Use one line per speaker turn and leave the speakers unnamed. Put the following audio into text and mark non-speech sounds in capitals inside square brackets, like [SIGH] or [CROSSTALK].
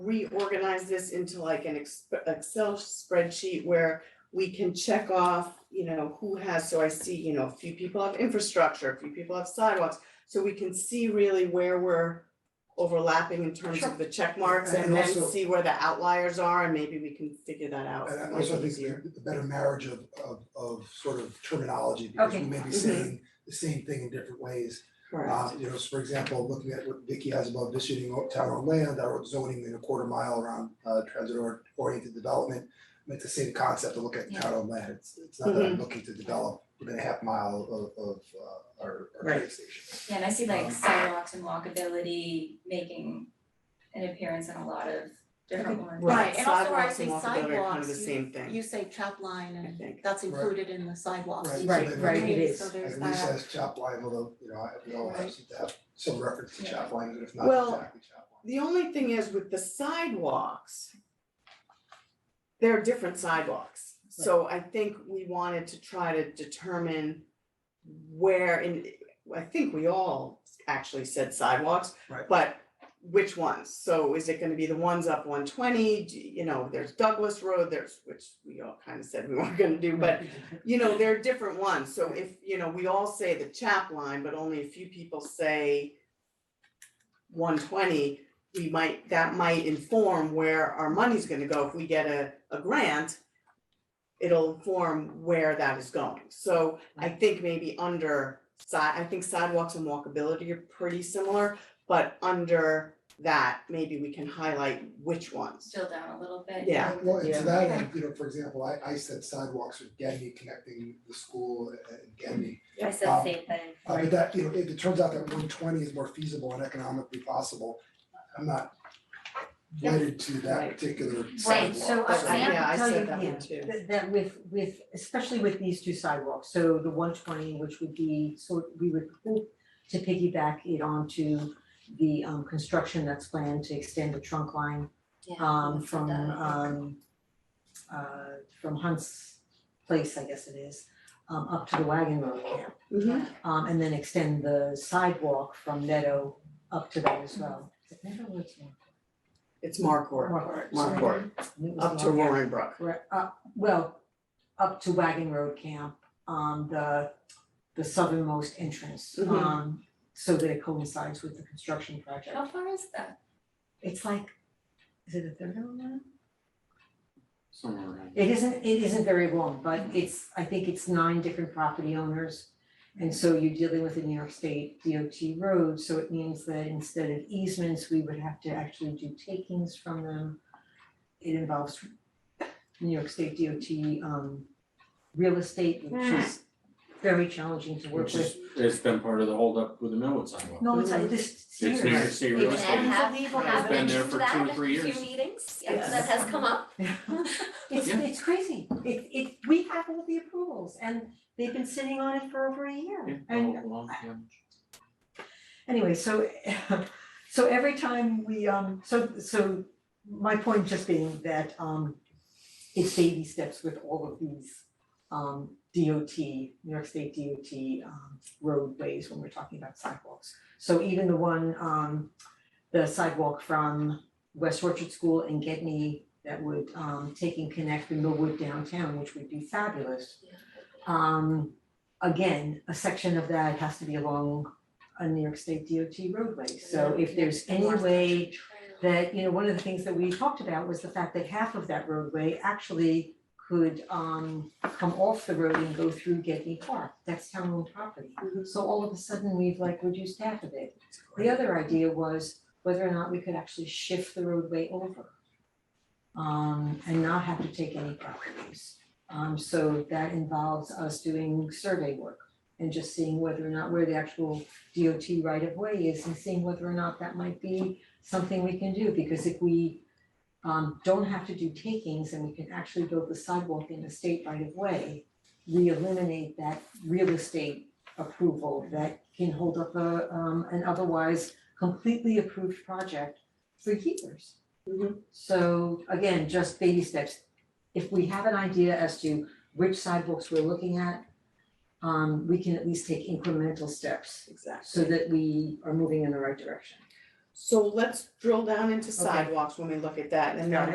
reorganize this into like an ex- Excel spreadsheet where we can check off, you know, who has, so I see, you know, a few people have infrastructure, a few people have sidewalks. So we can see really where we're overlapping in terms
Sure.
of the check marks
And
and then
also-
see where the outliers are and maybe we can figure that out.
And I
much
also think
easier.
the the better marriage of of of sort of terminology, because we
Okay.
may be
Mhm.
saying the same thing in different ways.
Correct.
Uh, you know, so for example, looking at what Vicky has about visiting o- town on land, I wrote zoning in a quarter mile around uh transit or- oriented development. And It's the same concept to look at town on land, it's it's not that I'm looking to develop within a half mile of of uh our our train
Right.
station.
Yeah, and I see
Um,
like sidewalks and walkability making an appearance in a lot of different ones.
Right, and also where I
Sidewalks and
say
walkability are kind of the
sidewalks,
same thing,
You say chop line
I
and
think.
that's
Right.
included in the sidewalks.
Right, so
Right,
then-
right, it
So
is.
there's
At least
that.
has chop line, although, you know, I we all have to have some reference to
Yeah.
chop line, but if not
Well,
exactly chop line.
The only thing is with the sidewalks, there are different sidewalks. So I think we wanted to try to determine where in, I think we all actually said sidewalks,
Right.
but which ones? So is it gonna be the ones up one twenty, you know, there's Douglas Road, there's, which we all kind of said we [LAUGHS] weren't gonna do, but you know, there are different ones, so if, you know, we all say the chap line, but only a few people say one twenty, we might, that might inform where our money's gonna go, if we get a, a grant, it'll inform where that is going, so I think maybe under side, I think sidewalks and walkability are pretty similar, but under that, maybe we can highlight which ones.
Still down a little bit.
Yeah.
Well, and
Yeah.
to that end, you know, for example, I I said sidewalks with Denny connecting the school and Denny.
I said
Um,
same thing.
Uh, but that, you know, if it turns out that one twenty is more feasible and economically possible, I'm not
Yeah.
wedded to that
Right.
particular
Right,
sidewalk.
so I-
But I-
have to
yeah, I
tell you-
said that
yeah.
one too.
That that with with, especially with these two sidewalks, so the one twenty, which would be, so we would hope to piggyback it onto the um construction that's planned to extend the trunk line um from um uh from Hunt's place, I guess it is, um up to the wagon road camp.
Mhm.
Um and then extend the sidewalk from Meadow up to that as well. Is it Meadow or it's Mark?
It's Markor,
Mark.
Markor,
And it was
up to
Mark.
Roaring Brook.
Right, uh, well, up to Wagon Road Camp, um, the, the southernmost entrance,
Mhm.
um, so that it coincides with the construction project.
How far is that?
It's like, is it a third of a mile?
somewhere around.
It isn't, it isn't very long, but it's, I think it's nine different property owners. And so you're dealing with a New York State DOT road, so it means that instead of easements, we would have to actually do takings from them. It involves New York State DOT um real estate, which is very challenging to work
Which is,
with.
it's been part of the holdup with the Millwood sidewalk.
No, it's like this
It's New York State real
It's
estate.
unbelievable.
It's been there for two or three years.
meetings,
Yes.
has come up.
It's
Yeah.
it's crazy, it it, we have all the approvals and they've been sitting on it for over a
Yeah,
year.
all
And
along, yeah.
anyway, so [LAUGHS] so every time we um so so my point just being that um it's baby steps with all of these um DOT, New York State DOT um roadways when we're talking about sidewalks. So even the one um the sidewalk from West Orchard School and Get Me that would um take and connect the Millwood downtown, which would be fabulous. Um again, a section of that has to be along a New York State DOT roadway. So if there's any way that, you know, one of the things that we talked about was the fact that half of that roadway actually could um come off the road and go through Getney Park. That's town owned property. So all of a sudden, we've like reduced half of it. The other idea was whether or not we could actually shift the roadway over. Um and not have to take any properties. Um so that involves us doing survey work and just seeing whether or not where the actual DOT right of way is and seeing whether or not that might be something we can do, because if we um don't have to do takings and we can actually build the sidewalk in the state right of way, we eliminate that real estate approval that can hold up a um an otherwise completely approved project for years.
Mhm.
So again, just baby steps. If we have an idea as to which sidewalks we're looking at, um we can at least take incremental steps
Exactly.
so that we are moving in the right direction.
So let's drill down into
Okay.
sidewalks when we look at that, and then
Got it.